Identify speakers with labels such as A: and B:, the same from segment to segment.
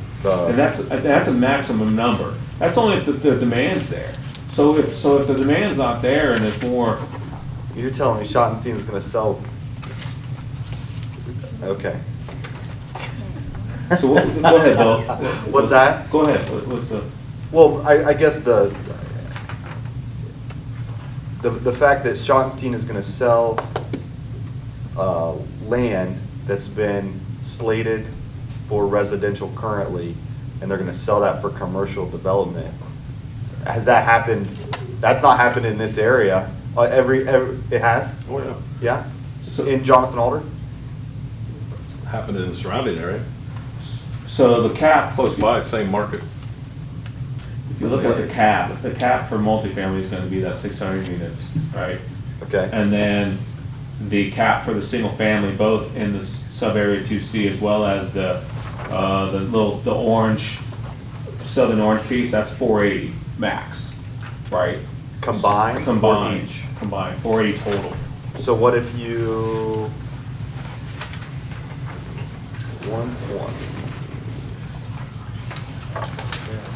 A: And
B: the,
A: that's, that's a maximum number. That's only if the, the demand's there. So if, so if the demand's not there and it's more,
B: you're telling me Schottenstein's gonna sell? Okay.
A: so what, go ahead, Bill.
B: What's that?
A: Go ahead, What- what's the,
B: Well, I, I guess the, the, the fact that Schottenstein is gonna sell, uh, land that's been slated for residential currently, and they're gonna sell that for commercial development. Has that happened? That's not happened in this area. Uh, every, every, it has?
C: Oh, yeah.
B: Yeah?
A: So-
B: In Jonathan Alder?
C: Happened in the surrounding area.
A: so the cap,
C: Close by, it's same market.
A: if you look at the cap, the cap for multifamily is gonna be that six hundred units, right?
B: Okay.
A: And then the cap for the single family, both in the s- sub-area two C as well as the, uh, the little, the orange, southern orange piece, that's four eighty max, right?
B: Combined? or
A: Combined,
B: each?
A: combined, four eighty total.
B: So what if you? One,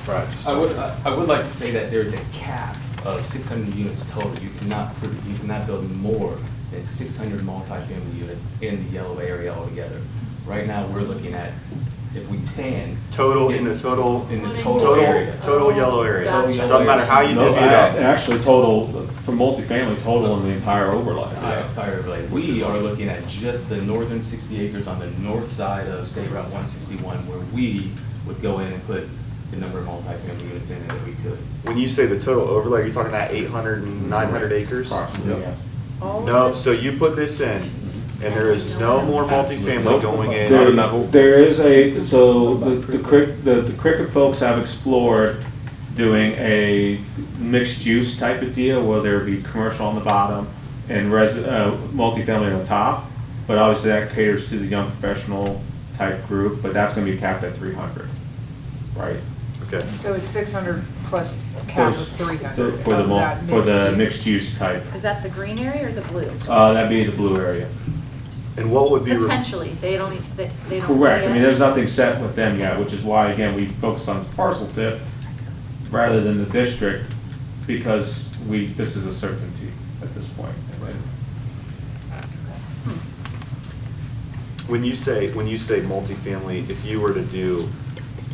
C: Right.
D: I would, I I would like to say that there is a cap of six hundred units total. You cannot, pr- you cannot build more than six hundred multifamily units in the yellow area altogether. Right now, we're looking at, if we can.
B: Total, in the total,
D: In the total
B: total,
D: area.
B: total yellow area.
D: Total yellow
B: Doesn't matter
D: area.
B: how you
A: No,
B: divvy it
A: a-
B: up.
A: Actually, total, for multifamily, total in the entire overlay.
D: I- Fire Blade. We are looking at just the northern sixty acres on the north side of State Route one sixty-one where we would go in and put the number of multifamily units in that we could.
B: When you say the total overlay, you're talking about 800 and 900 acres?
A: Approximately, yeah.
B: No, so you put this in and there is no more multifamily going in.
C: Not
A: There-
C: enough.
A: There is a, so the the Cric, the the Cricket folks have explored doing a mixed-use type of deal, where there be commercial on the bottom and res, uh, multifamily on top, but obviously that caters to the young professional type group, but that's gonna be capped at three hundred, right?
B: Okay.
E: So it's six hundred plus cap of three hundred.
A: For the, mul- for the mixed-use type,
F: Is that the green area or the blue?
A: uh, that'd be the blue area.
B: And what would be? re-
F: Potentially, they don't, e- they they don't.
A: Correct, I mean,
F: yeah.
A: there's nothing set with them yet, which is why, again, we focus on parcel tip rather than the district, because we, this is a certainty at this point.
F: Hmm.
B: When you say, when you say multifamily, if you were to do,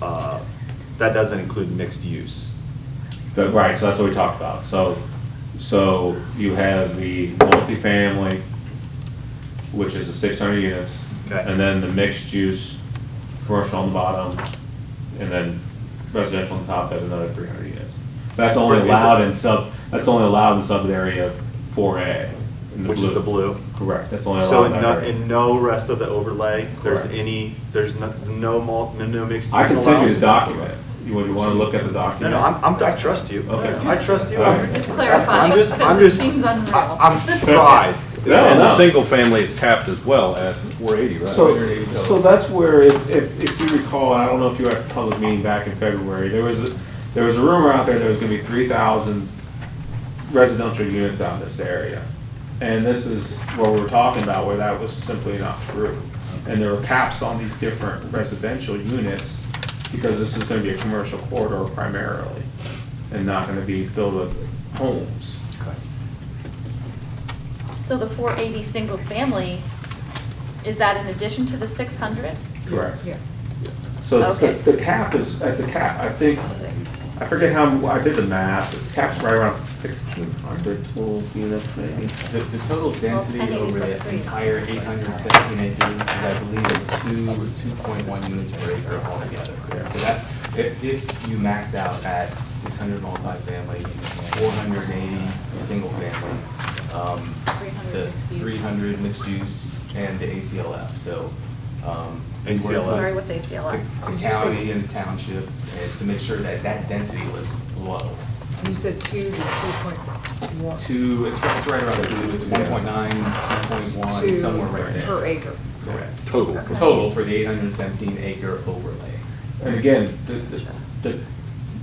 B: uh, that doesn't include mixed use.
A: The, right, so that's what we talked about, so, so you have the multifamily, which is the six hundred units.
B: Okay.
A: And then the mixed use, commercial on the bottom, and then residential on top, that's another three hundred units. That's only
B: Is it-
A: allowed in sub, that's only allowed in sub area four A.
B: Which is the blue.
A: Correct, that's only
B: So
A: allowed
B: in
A: in
B: no,
A: that area.
B: in no rest of the overlay, there's
A: Correct.
B: any, there's no, no mul, no- no mixed use
A: I can send you the
B: allowed?
A: document, you, would you wanna look at the
B: No,
A: document?
B: no, I'm, I'm, I trust you.
A: Okay.
B: I trust you.
A: All right.
F: Just clarifying,
B: I'm just- I'm
F: because it
B: just-
F: seems unreal.
B: I- I'm surprised.
A: No,
C: And
A: no.
C: the single family is capped as well at four eighty, right?
A: So, so that's where, if, if, if you recall, I don't know if you were at the public meeting back in February, there was, a- there was a rumor out there there was gonna be three thousand residential units out in this area. And this is what we were talking about, where that was simply not true. And there were caps on these different residential units, because this is gonna be a commercial corridor primarily, and not gonna be filled with homes.
F: So the four eighty single family, is that in addition to the six hundred?
A: Correct.
E: Yeah.
A: So the,
F: Okay.
A: the cap is, at the cap, I think, I forget how, I did the math, the cap's right around sixteen hundred total units maybe.
D: The, the total density
F: 1080
D: over
F: plus
D: the
F: three.
D: entire eight hundred seventeen acres is, I believe, at two, or two point one units per acre altogether.
A: Yeah.
D: So that's, if, if you max out at six hundred multifamily, four hundred eighty single family, um,
F: 300
D: the
F: mixed use.
D: three hundred mixed use and the ACLF, so, um. we were-
B: ACLF.
F: Sorry, what's ACLR?
D: The the county and the township, and to make sure that that density was low.
E: You said two to two point one.
D: Two, it's it's right around the blue, it's one point nine, two point one,
E: two
D: somewhere right there.
E: Per acre.
D: Correct.
C: Total.
D: Total for the eight hundred and seventeen acre overlay.
A: And again, the, the, the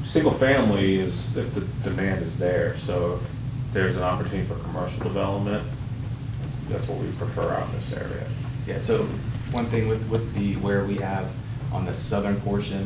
A: single family is, if the demand is there, so if there's an opportunity for commercial development, that's what we prefer out in this area.
D: Yeah, so one thing with, with the, where we have on the southern portion